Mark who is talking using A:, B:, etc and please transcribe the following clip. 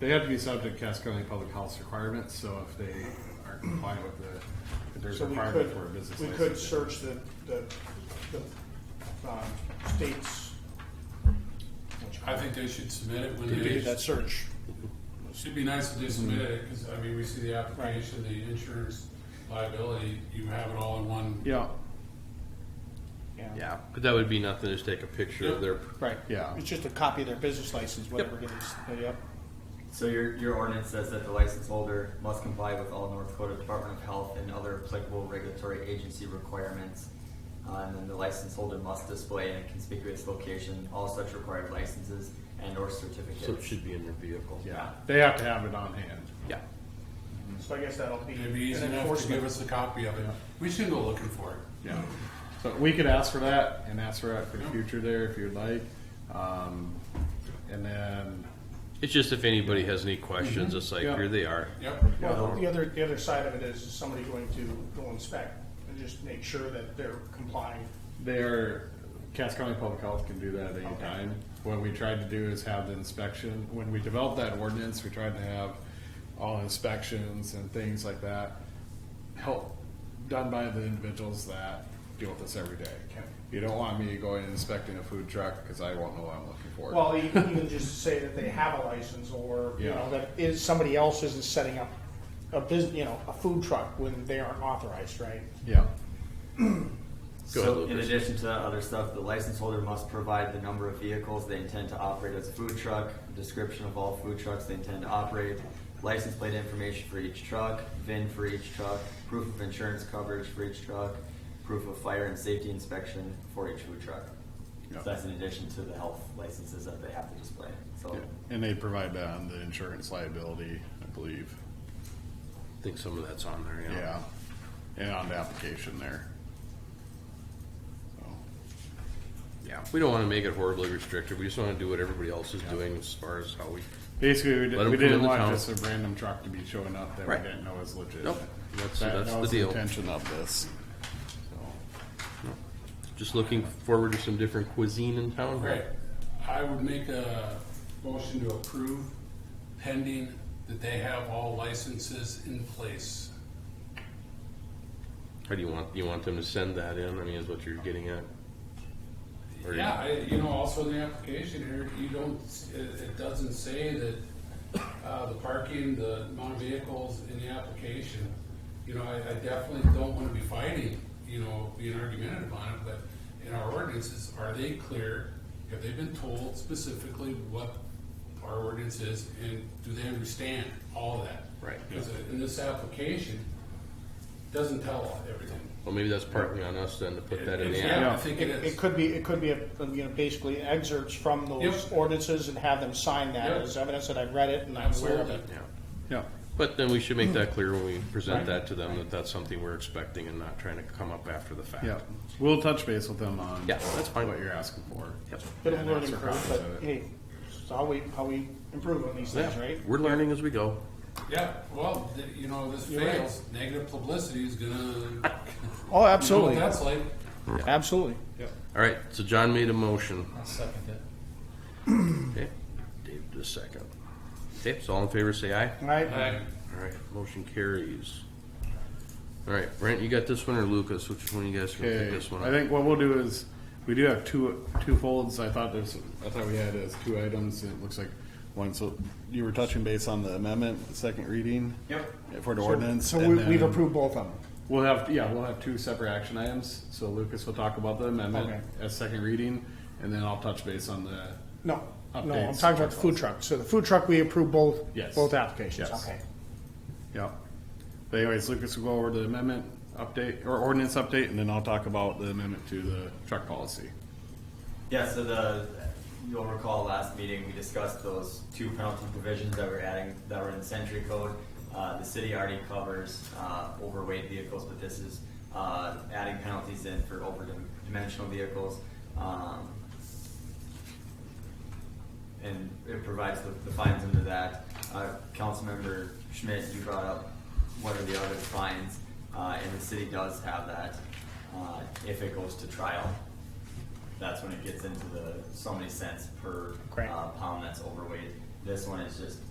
A: They have to be subject to Cass County Public Health requirements, so if they aren't compliant with the, if there's
B: So
A: a
B: we
A: requirement for a
B: could,
A: business
B: we
A: license.
B: could search the, the, the, um, states.
C: I think they should submit it when
B: We could
C: they,
B: do Mm-hmm. that search.
C: should be nice if they submit it, because, I mean, we see the application, the insurance liability, you have it all in one.
B: Yeah.
D: Yeah, but that would be nothing, just take a picture of their,
B: Right.
A: Yeah.
B: It's just a copy of their business license, whatever it is. Yep.
E: So your, your ordinance says that the license holder must comply with all North Dakota Department of Health and other applicable regulatory agency requirements. Uh, and then the license holder must display in a conspicuous location all such required licenses and or
D: so it
E: certificates.
D: should be in their vehicle.
A: Yeah, they have to have it on hand.
D: Yeah.
B: So I guess that'll be
C: It'd be
B: an
C: easy enough to give
B: enforcement.
C: us a copy of it. We should go looking for it.
A: Yeah. So we could ask for that and ask for that for the future there if you'd like. Um, and then,
D: It's just if anybody has any questions, it's like,
A: Mm-hmm. Yeah.
D: here they are.
C: Yep.
B: Well, the other, the other side of it is is somebody going to go inspect and just make sure that they're complying.
A: Their Cass County Public Health can do that at any time. What we tried to do is have the inspection, when we developed that ordinance, we tried to have all inspections and things like that help done by the individuals that deal with this every day. You don't want me going and inspecting a food truck because I won't know what I'm looking for.
B: Well, you can even just say that they have a license or, you know,
A: Yeah.
B: that is, somebody else isn't setting up a business, you know, a food truck when they aren't authorized, right?
A: Yeah.
D: Go ahead,
E: So in
D: Lucas.
E: addition to that other stuff, the license holder must provide the number of vehicles they intend to operate as a food truck, description of all food trucks they intend to operate, license plate information for each truck, VIN for each truck, proof of insurance coverage for each truck, proof of fire and safety inspection for each food truck.
A: Yeah.
E: So that's in addition to the health licenses that they have to display, so.
A: And they provide that on the insurance liability, I believe.
D: I think some of that's on there, yeah.
A: Yeah. And on the application there. So.
D: Yeah, we don't wanna make it horribly restrictive, we just wanna do what everybody else is doing as far as how we,
A: Basically, we, did,
D: Let 'em
A: we
D: come in
A: didn't
D: the
A: want
D: town.
A: just a random truck to be showing up that
D: Right.
A: we didn't know was legit.
D: Nope. That's-
A: that,
D: that's
A: that
D: the
A: was
D: deal.
A: intention of this.
D: just looking forward to some different cuisine in town.
C: Great. I would make a motion to approve pending that they have all licenses in place.
D: How do you want, you want them to send that in, I mean, is what you're getting at? Or you-
C: Yeah, I, you know, also in the application here, you don't, it, it doesn't say that, uh, the parking, the amount of vehicles in the application. You know, I, I definitely don't wanna be fighting, you know, being argumentative on it, but in our ordinances, are they clear? Have they been told specifically what our ordinance is, and do they understand all of that?
D: Right.
C: Because in this application, doesn't tell everything.
D: Well, maybe that's partly on us then to put that in the app.
C: Yeah, I think it
B: It,
C: is.
B: it could be, it could be, a you know, basically excerpts from those
C: Yep.
B: ordinances and have them sign that
C: Yep.
B: as evidence that I've read it and I'm aware of
C: Absolutely.
B: it.
D: Yeah.
A: Yeah.
D: But then we should make
A: Mm-hmm.
D: that clear when we present
B: Right.
D: that to them, that that's something we're expecting and not trying to come up after the fact.
A: Yeah. We'll touch base with them on
D: Yeah, that's fine.
A: what you're asking for.
D: Yep.
B: Bit of a
A: And
B: learning
A: extra
B: curve,
A: copies
B: but
A: of it.
B: hey, it's how we, how we improve on these things,
D: Yeah,
B: right?
D: We're learning as we go.
C: Yeah, well, th- you know, this
B: You're right.
C: fails, negative publicity is gonna. you know
B: Oh,
C: what That's like.
B: absolutely.
D: All right, so John made a motion.
C: I'll second it.
D: Okay, Dave did a second. Okay, so all in favor, say aye.
B: All right,
C: Aye.
D: All right, motion carries. All right, Brent, you got this one or Lucas? Which one you guys gonna pick
A: Okay.
D: this one
A: I
D: up?
A: think what we'll do is we do have two two folds. I thought there's I thought we had as two items. It looks like one. So you were touching base on the amendment, the second reading. Yep. For the ordinance.
B: so
A: and
B: we,
A: then-
B: we've approved both of them.
A: We'll have, yeah, we'll have two separate action items, so Lucas will talk about the amendment
B: Okay.
A: as second reading, and then I'll touch base on the,
B: No, no, I'm
A: Updates.
B: talking about the food truck. So the food truck, we approve both,
A: Yes.
B: both applications.
A: Yes.
B: Okay.
A: yeah. But anyways, Lucas will go over the amendment update, or ordinance update, and then I'll talk about the amendment to the truck policy.
E: Yeah, so the, you'll recall last meeting, we discussed those two penalty provisions that we're adding, that were in the century code. Uh, the city already covers, uh, overweight vehicles, but this is, uh, adding penalties in for over dimensional vehicles. Um, and it provides the, the fines under that. Uh, Councilmember Schmidt, you brought up what are the other fines, uh, and the city does have that, uh, if it goes to trial. That's when it gets into the so many cents per,
B: Great.
E: uh, pound that's overweight. This one is just